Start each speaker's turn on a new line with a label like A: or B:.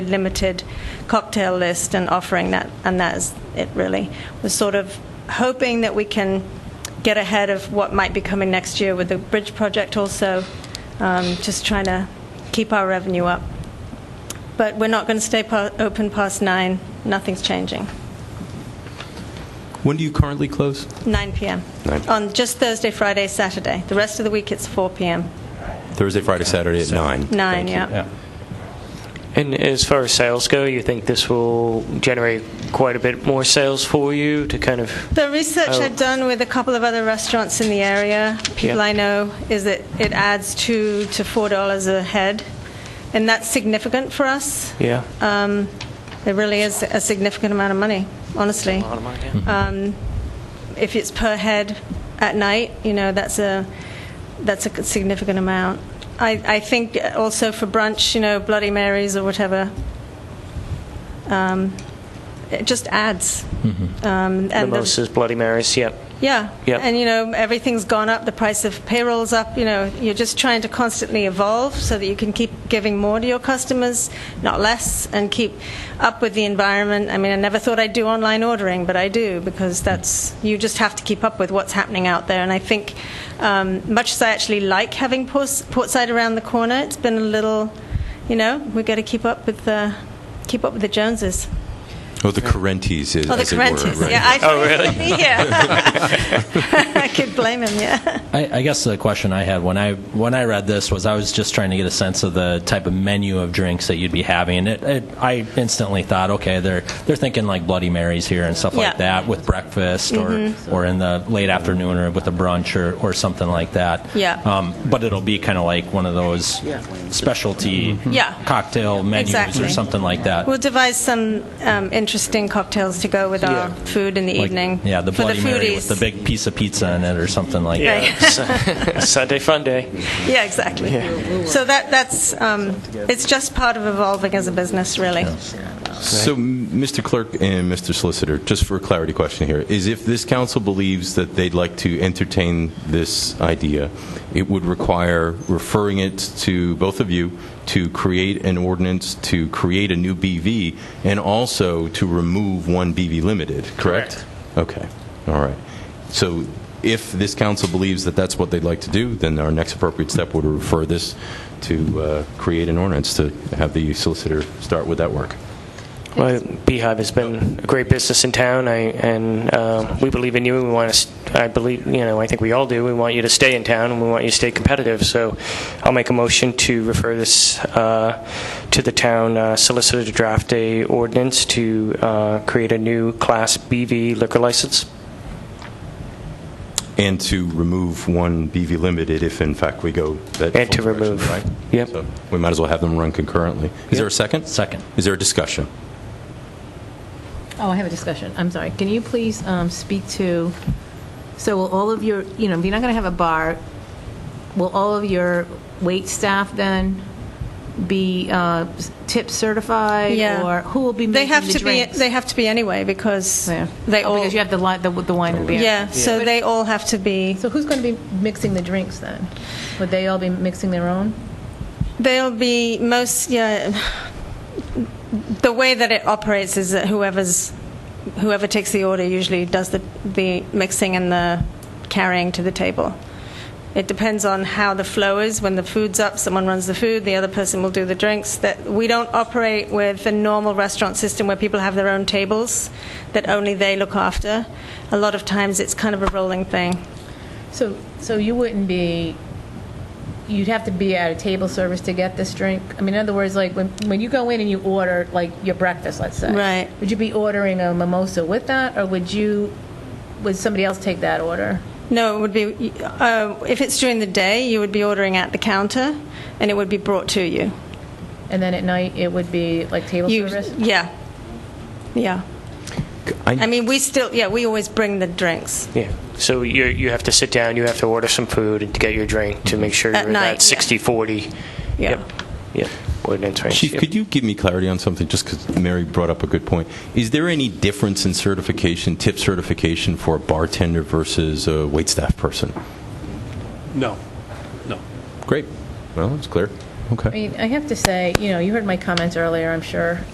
A: limited cocktail list and offering that, and that is it really. We're sort of hoping that we can get ahead of what might be coming next year with the bridge project also, um, just trying to keep our revenue up. But we're not going to stay pa- open past 9, nothing's changing.
B: When do you currently close?
A: 9 p.m.
B: 9.
A: On just Thursday, Friday, Saturday. The rest of the week it's 4 p.m.
B: Thursday, Friday, Saturday at 9.
A: 9, yeah.
C: And as far as sales go, you think this will generate quite a bit more sales for you to kind of
A: The research
C: Oh.
A: I've done with a couple of other restaurants in the area, people
C: Yeah.
A: I know, is that it adds two to four dollars a head, and that's significant for us.
C: yeah
A: Um, it really is a significant amount of money, honestly. Um, if it's per head at night, you know that's a that's a significant amount. I, I think also for brunch, you know, Bloody Marys or whatever. Um, it just adds. Um,
C: Mm-hmm.
A: and the-
C: mimosas, Bloody Marys? Yep.
A: yeah.
C: Yep.
A: And, you know, everything's gone up, the price of payroll's up, you know, you're just trying to constantly evolve so that you can keep giving more to your customers, not less, and keep up with the environment. I mean, I never thought I'd do online ordering, but I do because that's, you just have to keep up with what's happening out there. And I think, um, much as I actually like having Ports- Portside around the corner, it's been a little, you know, we've got to keep up with the, keep up with the Joneses.
B: Oh, the Correntes, as,
A: Oh, the
B: as it were,
A: Correntes.
B: right.
A: Yeah, I oh, really? yeah. I could blame him, yeah.
D: I, I guess the question I had when I when I read this was I was just trying to get a sense of the type of menu of drinks that you'd be having. And it, it, I instantly thought, okay, they're they're thinking like Bloody Marys here and stuff
A: Yeah. Mm-hmm.
D: like that with breakfast or or in the late afternoon or with a brunch or, or something like that.
A: Yeah.
D: Um, but it'll be kind of like one of those specialty
A: Mm-hmm. Yeah.
D: cocktail menus
A: Exactly.
D: or something like that.
A: We'll devise some um, interesting cocktails to go with our food in the
D: Like,
A: evening.
D: Yeah, the
A: for
D: Bloody
A: the foodies.
D: Mary with the big piece of pizza in it or something like that.
A: Right.
C: Sunday fun day.
A: Yeah, exactly. So that that's um, it's just part of evolving as a business, really.
B: So, m- Mr. Clerk and Mr. Solicitor, just for a clarity question here, is if this council believes that they'd like to entertain this idea, it would require referring it to both of you to create an ordinance, to create a new BV, and also to remove one BV limited, correct? Okay, all right. So if this council believes that that's what they'd like to do, then our next appropriate step would refer this to uh, create an ordinance, to have the solicitor start with that work.
C: Well, Beehive has been a great business in town, I, and um, we believe in you. And we want to. I believe you know. I think we all do. We want you to stay in town, and we want you to stay competitive. So, I'll make a motion to refer this uh, to the town uh, solicitor to draft a ordinance to uh, create a new Class BV liquor license.
B: And to remove one BV Limited if in fact we go that.
C: And to
B: full direction,
C: remove.
B: right?
C: Yep.
B: So We might as well have them run concurrently. Is there a second?
D: Second.
B: Is there a discussion?
E: Oh, I have a discussion. I'm sorry. Can you please um, speak to, so will all of your, you know, if you're not going to have a bar, will all of your wait staff then be uh, tip certified?
A: Yeah.
E: Or who will be
A: They
E: making
A: have
E: the
A: to be
E: drinks?
A: they have to be anyway because
E: Yeah.
A: they
E: Oh,
A: all
E: Because you have the li- the the wine and beer.
A: yeah, so they all have to be
E: So who's going to be mixing the drinks then? Would they all be mixing their own?
A: They'll be most, yeah. The way that it operates is that whoever's, whoever takes the order usually does the, the mixing and the carrying to the table. It depends on how the flow is. When the food's up, someone runs the food, the other person will do the drinks. That we don't operate with a normal restaurant system where people have their own tables that only they look after. A lot of times it's kind of a rolling thing.
E: So, so you wouldn't be, you'd have to be at a table service to get this drink? I mean, in other words, like, when, when you go in and you order, like, your breakfast, let's say.
A: Right.
E: Would you be ordering a mimosa with that, or would you, would somebody else take that order?
A: No, it would be, uh, if it's during the day, you would be ordering at the counter and it would be brought to you.
E: And then at night, it would be like table
A: you
E: service?
A: yeah. Yeah. I mean, we still, yeah, we always bring the drinks.
C: Yeah. So you you have to sit down. You have to order some food and to get your drink
B: Mm-hmm.
C: to make sure
A: At
C: you're
A: night,
C: at
A: yeah.
C: 60 40.
A: Yeah.
C: Yep. Yep. Ordinance range.
B: Chief,
C: Yep.
B: could you give me clarity on something, just because Mary brought up a good point? Is there any difference in certification, tip certification for a bartender versus a waitstaff person?
F: No, no.
B: Great. Well, that's clear. Okay.
E: I mean, I have to say, you know, you heard my comments earlier, I'm sure,